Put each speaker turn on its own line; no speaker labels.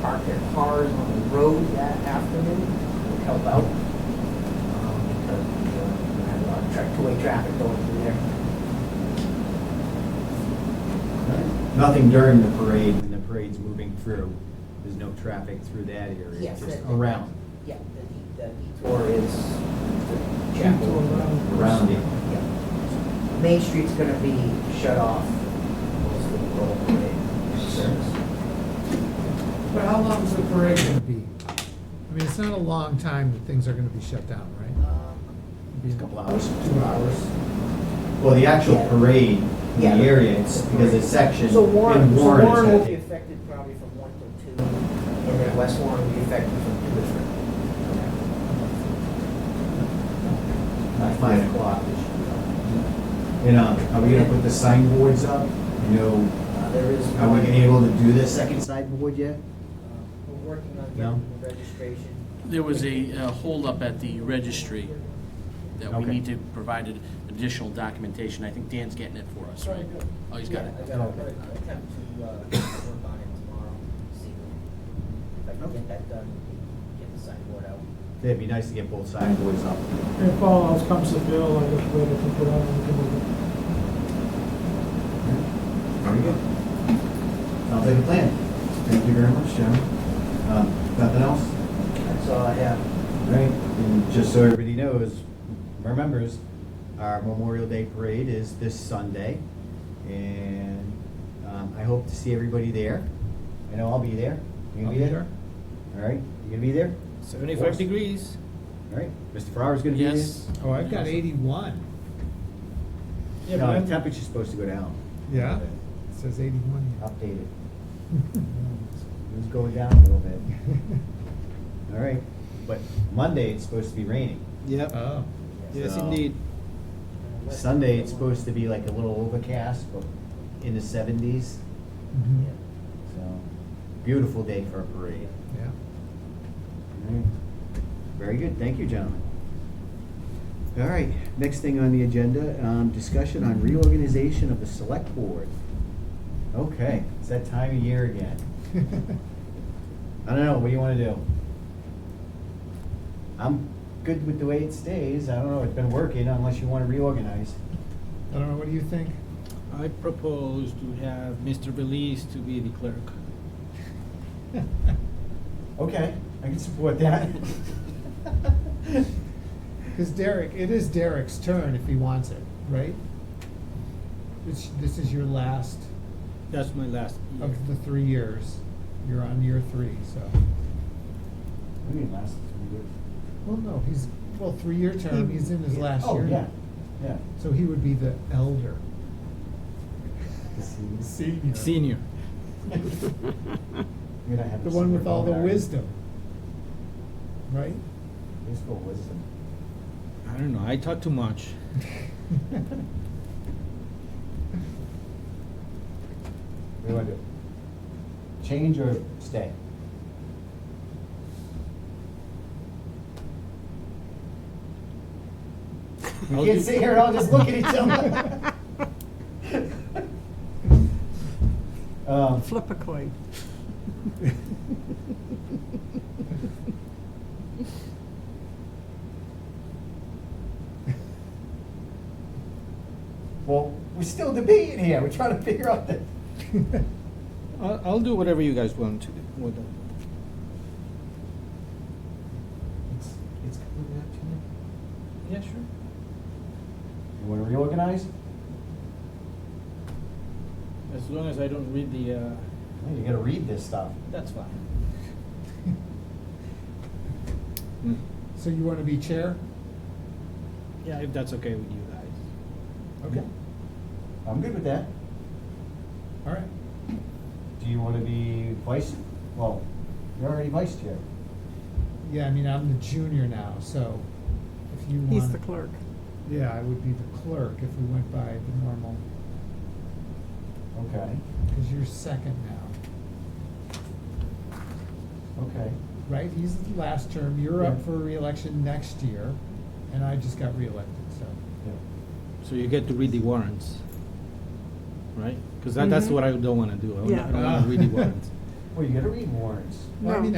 park their cars on the road that afternoon would help out. um, Because we uh, had a lot of tra- two-way traffic going through there.
Nothing during the parade, when the parade's moving through, there's no traffic through that area?
Yes,
Just
that-
around,
Yeah, the the detour is the chapel.
around it?
Yeah. Main Street's gonna be shut off most of the roll parade service.
But how long is the parade gonna be? I mean, it's not a long time that things are gonna be shut down, right? Be
It's a couple hours.
Two hours.
Well, the actual
Yeah.
parade in the
Yeah.
area, it's because it's sectioned
So Warren,
in
so
Warren.
Warren will be
it's got
affected probably from one to two, and then West Warren will be affected from two to three.
By five o'clock. And, um, are we gonna put the signboards up? You know,
Uh, There is.
are we
one-
gonna be able to do the second signboard yet?
uh, We're working on
No?
getting the registration.
There was a uh, holdup at the registry that we
Okay.
need to provide ad- additional documentation. I think Dan's getting it for us, right? Oh, he's got it.
Yeah, I got, I'm gonna attempt to, uh, work on it tomorrow, see if I can get that done, get the signboard out.
It'd be nice to get both signboards up.
If all else comes to bill, I just wait if we put on the bill.
Very good. Sounds like a plan. Thank you very much, gentlemen. Um, Nothing else?
That's all I have.
Right, and just so everybody knows, remembers, our Memorial Day Parade is this Sunday. And um, I hope to see everybody there. I know I'll be there. You gonna be there? All right, you gonna be there?
Seventy-five degrees.
All right, Mr. Farrar's gonna be there?
Yes.
Oh, I've got eighty-one,
Yeah, but
No,
I'm-
the temperature's supposed to go down,
yeah? It says eighty-one here.
updated. It was going down a little bit. All right, but Monday it's supposed to be raining.
Yep,
Oh,
yes
So-
indeed.
Sunday it's supposed to be like a little overcast, but in the seventies.
mhm,
Yeah.
So, beautiful day for a parade.
yeah.
All right. Very good, thank you, gentlemen. All right, next thing on the agenda, um, discussion on reorganization of the select board. Okay, it's that time of year again. I don't know, what do you wanna do? I'm good with the way it stays, I don't know, it's been working unless you wanna reorganize.
I don't know, what do you think?
I propose to have Mr. Belize to be the clerk.
Okay, I can support that.
Cause Derek, it is Derek's turn if he wants it, right? This, this is your last
That's my last year.
of the three years. You're on year three, so.
I mean, last three years.
Well, no, he's, well, three-year term, he's in his last year.
Oh, yeah, yeah.
So he would be the elder,
You're
senior.
Senior.
gonna have
The
to
one with
support
all the
that.
wisdom, right?
Useful wisdom.
I don't know, I talk too much.
What do you want to do? Change or stay?
I'll
We can't
do-
sit here and all just look at each other. Um,
Flip a coin.
Well, we're still debating here, we're trying to figure out the.
I'll, I'll do whatever you guys want to do. What the-
It's, it's completely up to you.
Yeah, sure.
You want to reorganize?
As long as I don't read the, uh,
Well, You gotta read this stuff.
that's fine. Hmm.
So you want to be chair?
Yeah, if that's okay with you guys.
Okay,
I'm good with that.
all right.
Do you want to be vice, well, you're already vice chair.
Yeah, I mean, I'm the junior now, so if you want.
He's the clerk.
Yeah, I would be the clerk if we went by the normal,
Okay,
because you're second now,
okay.
right? He's the last term, you're up
Yeah.
for reelection next year, and I just got reelected, so.
yeah.
So you get to read the warrants, right? Because that, that's
Mhm.
what I don't want to do. I don't-
Yeah.
I don't want to read the warrants.
Well, you gotta read warrants.
Well, I
No.
mean,